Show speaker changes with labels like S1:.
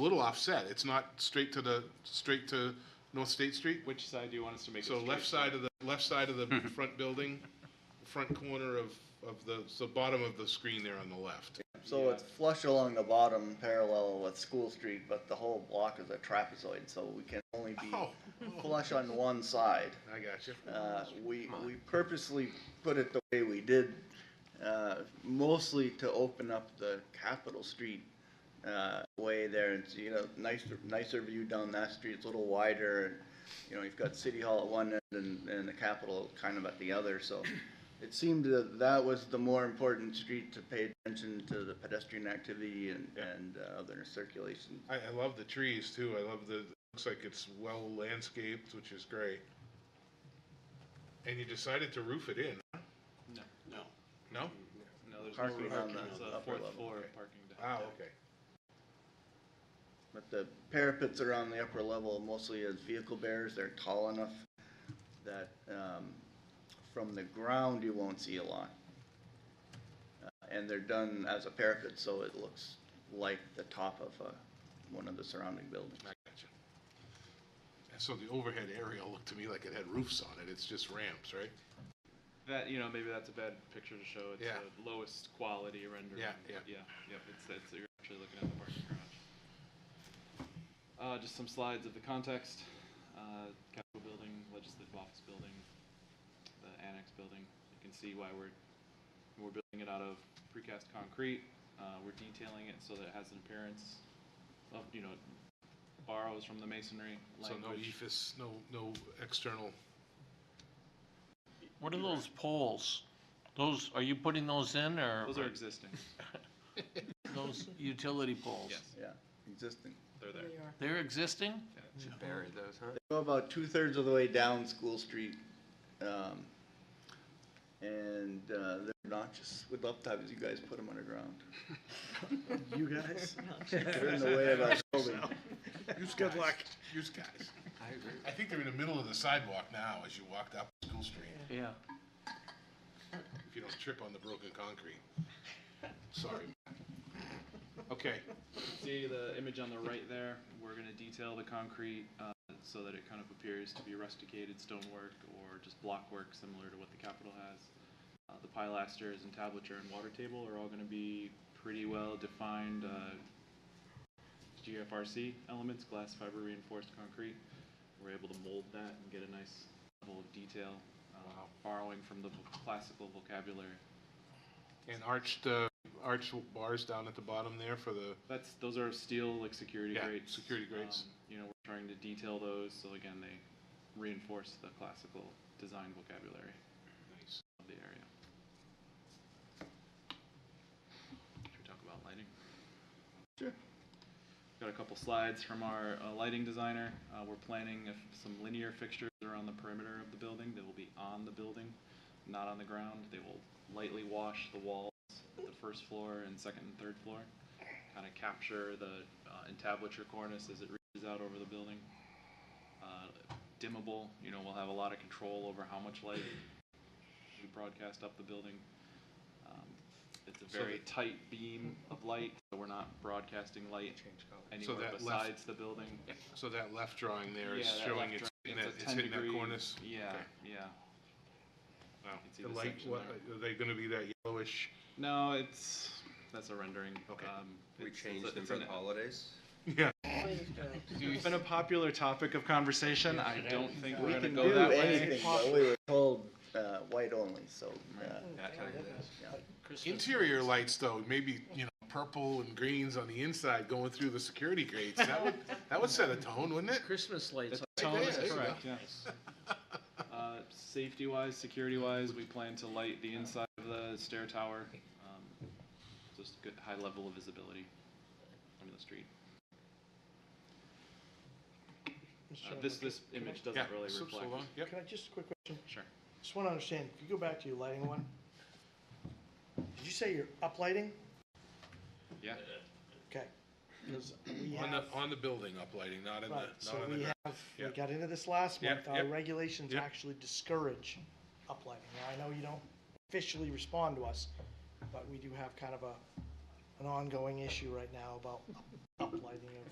S1: a little offset. It's not straight to the, straight to North State Street.
S2: Which side do you want us to make it
S1: So
S2: straight?
S1: left side of the, left side of the front building, front corner of, of the, so bottom of the screen there on the left.
S3: So it's flush along the bottom parallel with School Street, but the whole block is a trapezoid, so we can only be
S1: Oh,
S3: flush on one side.
S1: I got you.
S3: Uh, we, we purposely put it the way we did, uh, mostly to open up the Capitol Street, uh, way there. It's, you know, nicer, nicer view down that street, it's a little wider. and You know, you've got City Hall at one end and, and the Capitol kind of at the other, so. It seemed that that was the more important street to pay attention to the pedestrian activity and, and uh, other circulation.
S1: I, I love the trees too. I love the, it looks like it's well landscaped, which is great. And you decided to roof it in?
S2: No.
S1: No. No?
S2: No, there's
S3: Parking
S2: no
S3: on
S2: parking,
S3: the
S2: it's a
S3: upper
S2: fourth
S3: level.
S2: floor parking down
S1: Ah,
S2: there.
S1: okay.
S3: But the parapets are on the upper level mostly as vehicle bearers. They're tall enough that um, from the ground you won't see a lot. Uh, And they're done as a parapet, so it looks like the top of uh, one of the surrounding buildings.
S1: I got you. And so the overhead area looked to me like it had roofs on it. It's just ramps, right?
S2: That, you know, maybe that's a bad picture to show. It's
S1: Yeah.
S2: the lowest quality rendering.
S1: Yeah,
S2: but
S1: yeah.
S2: Yeah, yep, it's, it's, you're actually looking at the parking garage. Uh, just some slides of the context, uh, Capitol Building, Legislative Office Building, the Annex Building. You can see why we're, we're building it out of precast concrete. Uh, we're detailing it so that it has an appearance of, you know, borrows from the masonry
S1: So no E
S2: language.
S1: ephes, no, no external.
S4: What are those poles? Those, are you putting those in or?
S2: Those are existing,
S4: Those utility poles?
S2: yes,
S3: Yeah, existing.
S2: they're there.
S4: They're existing?
S5: Should bury those, huh?
S3: Go about two-thirds of the way down School Street. um, And uh, they're obnoxious. We'd love to have you guys put them underground. You guys? They're in the way of our building.
S1: Use good luck. Use guys. I think they're in the middle of the sidewalk now as you walked up School Street,
S4: Yeah.
S1: if you don't trip on the broken concrete. Sorry. Okay,
S2: See the image on the right there, we're gonna detail the concrete, uh, so that it kind of appears to be rusticated stonework or just blockwork similar to what the Capitol has. Uh, the pilasters and tablature and water table are all gonna be pretty well defined, uh, GFRC elements, glass fiber reinforced concrete. We're able to mold that and get a nice level of detail, uh, borrowing from the vo- classical vocabulary.
S1: and arched, uh, arched bars down at the bottom there for the,
S2: That's, those are steel, like, security
S1: Yeah,
S2: grates.
S1: security grates.
S2: Um, You know, we're trying to detail those, so again, they reinforce the classical design vocabulary
S1: nice.
S2: of the area. Should we talk about lighting?
S3: Sure.
S2: Got a couple slides from our uh, lighting designer. Uh, We're planning if some linear fixtures around the perimeter of the building. They will be on the building, not on the ground. They will lightly wash the walls, at the first floor and second and third floor, kind of capture the uh, entablature cornice as it reaches out over the building. Uh, Dimmable, you know, we'll have a lot of control over how much light we broadcast up the building. Um, It's a
S1: So
S2: very
S1: the-
S2: tight beam of light, so we're not broadcasting light anywhere
S1: that left-
S2: besides the building.
S1: So that left drawing there is
S2: Yeah, that
S1: showing
S2: left
S1: it's,
S2: drawing,
S1: hitting that-
S2: a
S1: it's hitting
S2: 10
S1: that
S2: degree-
S1: cornice.
S2: Yeah,
S1: Okay.
S2: yeah.
S1: Wow.
S2: can see
S1: The
S2: the
S1: light,
S2: section
S1: what, are they gonna be that yellowish?
S2: No, it's, that's a rendering.
S1: Okay.
S2: Um,
S5: We
S2: it's- it's
S5: changed
S2: a-
S5: them
S2: it's
S5: for
S2: an-
S5: the holidays.
S1: Yeah,
S2: It's been a popular topic of conversation. I don't think we're
S3: We
S2: gonna
S3: can
S2: go
S3: do
S2: that way.
S3: anything, but we were told uh, white only, so. uh,
S5: That time it is.
S1: interior lights though, maybe, you know, purple and greens on the inside going through the security grates, that would, that would set a tone, wouldn't it?
S6: Christmas lights.
S2: The tone is
S1: there you
S2: correct, yeah. Uh, safety wise, security wise, we plan to light the inside of the stair tower. um, Just good, high level of visibility from the street. Uh, This, this image
S1: Yeah,
S2: doesn't really
S1: so- so
S2: reflect.
S1: long, Yep.
S6: Can I, just a quick question,
S2: Sure.
S6: just wanna understand, if you go back to your lighting one, did you say you're uplighting?
S2: Yeah.
S6: Okay, because we
S1: On the,
S6: have,
S1: on the building uplighting, not in the,
S6: right, so
S1: not on the
S6: we
S1: ground.
S6: have, we
S1: Yep.
S6: got into this last
S1: Yep,
S6: month, our
S1: yep,
S6: regulations
S1: yep.
S6: actually discourage uplighting. Now, I know you don't officially respond to us, but we do have kind of a, an ongoing issue right now about uplighting of